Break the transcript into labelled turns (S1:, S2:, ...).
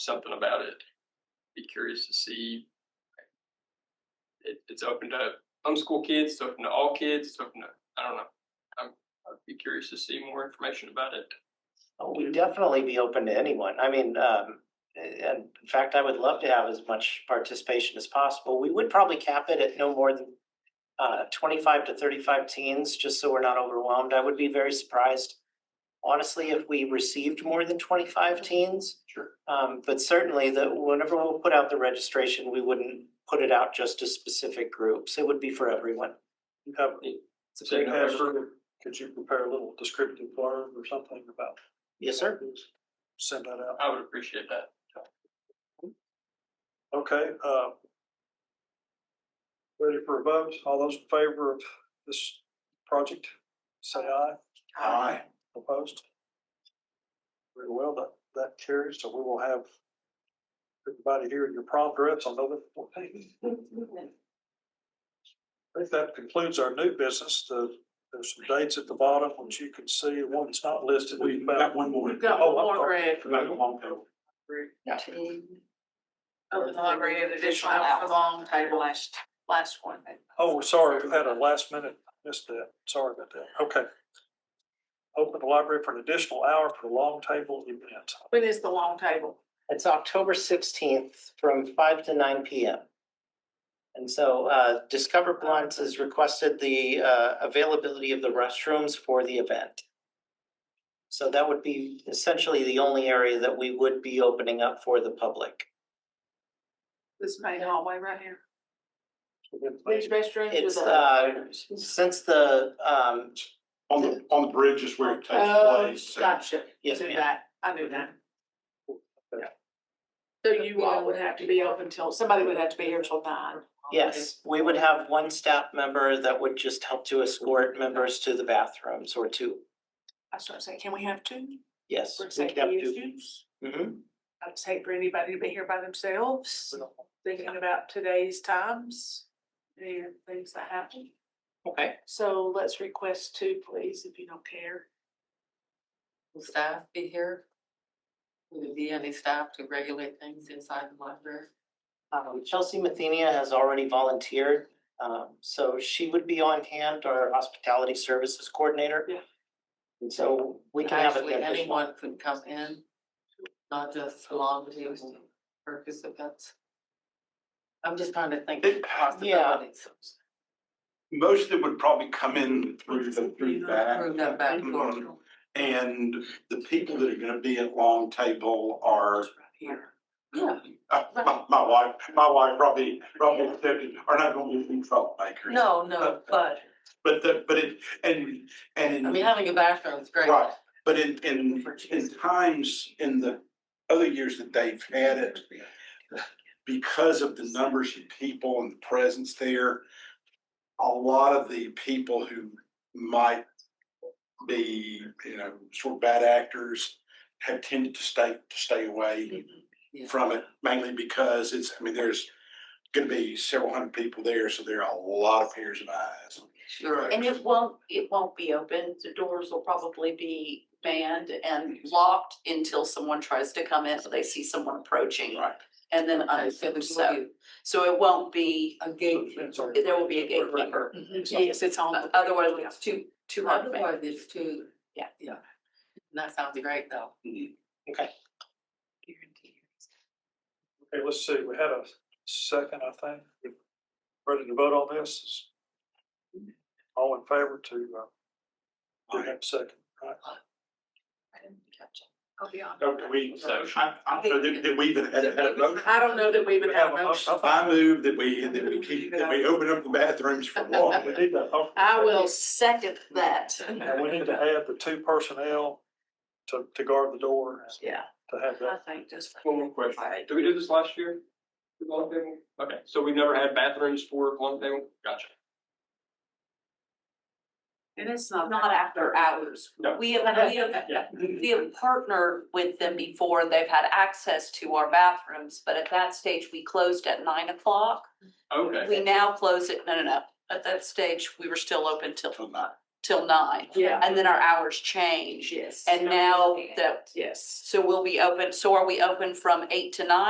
S1: something about it. Be curious to see. It, it's open to homeschool kids, it's open to all kids, it's open to, I don't know. I'm, I'd be curious to see more information about it.
S2: Oh, We'd definitely be open to anyone. I mean, um, and in fact, I would love to have as much participation as possible. We would probably cap it at no more than uh, twenty-five to thirty-five teens, just so we're not overwhelmed. I would be very surprised, honestly, if we received more than twenty-five teens.
S1: Sure.
S2: Um, but certainly that whenever we'll put out the registration, we wouldn't put it out just to specific groups. It would be for everyone.
S3: If they have, could you prepare a little descriptive blurb or something about?
S2: Yes, sir.
S3: Send that out.
S1: I would appreciate that.
S3: Okay, uh. Ready for a vote? All those in favor of this project, say aye. Aye. Opposed? Very well, that, that carries, so we will have everybody here in your prom dress on November fourteenth. I think that concludes our new business. The, there's some dates at the bottom, which you can see, one's not listed. Oh, We've got one more.
S4: We've
S2: Oh,
S4: got one more, Greg.
S2: Oh,
S4: Open the library of additional out for long table last, last one.
S3: Oh, we're sorry, we had a last minute, missed that, sorry about that, okay. Open the library for an additional hour for the long table event.
S4: When is the long table?
S2: It's October sixteenth from five to nine P M. And so uh, Discover Blunt has requested the uh, availability of the restrooms for the event. So that would be essentially the only area that we would be opening up for the public.
S4: This main hallway right here. These
S3: It
S4: restrooms with
S2: It's,
S4: the.
S2: Since the, um,
S5: On the, on the bridge is where it
S4: Oh,
S5: takes place. and-
S4: Gotcha.
S2: uh, yes,
S4: Do
S2: ma'am.
S4: that. I knew that. So you all would have to be open till, somebody would have to be here till nine.
S2: Yes, we would have one staff member that would just help to escort members to the bathrooms or two.
S4: That's what I'm saying. Can we have two?
S2: Yes.
S4: For
S2: we could have
S4: safety
S2: two.
S4: issues.
S2: Mhm.
S4: I'd hate for anybody to be here by themselves,
S2: Mm-hmm.
S4: thinking about today's times and things that happen.
S2: Okay.
S4: So let's request two, please, if you don't care.
S6: Will staff be here? Will there be any staff to regulate things inside the library?
S2: Um, Chelsea Mathenia has already volunteered, um, so she would be on hand, our hospitality services coordinator.
S4: Yeah.
S2: And so we can have an
S6: Actually,
S2: additional,
S6: anyone could come in, not just long table participants. I'm just trying to think of possibilities.
S5: Most of them would probably come in through the, through the back.
S6: Through that back door.
S5: Mhm. And the people that are gonna be at long table are,
S4: Here.
S6: Yeah,
S5: uh, my, my wife, my wife probably, probably said, are not gonna be troublemakers.
S6: no, no, but,
S5: But the, but it, and, and.
S6: I mean, having a bathroom is great.
S5: Right. But in, in, in times, in the other years that they've had it, because of the numbers of people and the presence there, a lot of the people who might be, you know, sort of bad actors have tended to stay, to stay away
S6: Yeah.
S5: from it, mainly because it's, I mean, there's gonna be several hundred people there, so there are a lot of ears and eyes.
S6: Sure.
S7: And it won't, it won't be open, the doors will probably be banned and locked until someone tries to come in, or they see someone approaching.
S5: Right.
S7: And then
S6: Okay, so
S7: unfit,
S6: there's
S7: so, so it won't be,
S6: a gate.
S7: there will be a gatekeeper,
S4: Yes, it's
S7: Oh,
S4: on. the-
S7: otherwise it's too, too hard to make.
S6: Otherwise, it's too.
S7: Yeah.
S6: Yeah. That sounds great, though.
S3: Okay, let's see, we had a second, I think. Ready to vote on this? All in favor to, uh, do that second, right?
S4: I'll be honest.
S5: Don't we,
S1: So-
S5: I, I, did, did we even had, had a vote?
S4: I don't know that we would have a motion.
S5: I move that we, that we keep, that we open up the bathrooms for
S3: Oh, We
S5: walking.
S3: need to, oh,
S7: I will second that.
S3: and we need to add the two personnel to, to guard the door. and
S7: Yeah.
S3: To have
S7: I
S3: that.
S7: think just.
S1: One more question. Did we do this last year? The Long table? Okay, so we've never had bathrooms for long table? Gotcha.
S4: And it's not.
S7: Not after hours.
S1: No.
S7: We have, we have we have partnered with them before, they've had access to our bathrooms, but at that stage, we closed at nine o'clock.
S1: Okay.
S7: We now close it, no, no, no, at that stage, we were still open till
S5: Till nine.
S7: till nine.
S4: Yeah.
S7: And then our hours change.
S4: Yes.
S7: And now that,
S4: Yes.
S7: so we'll be open, so are we open from eight to nine?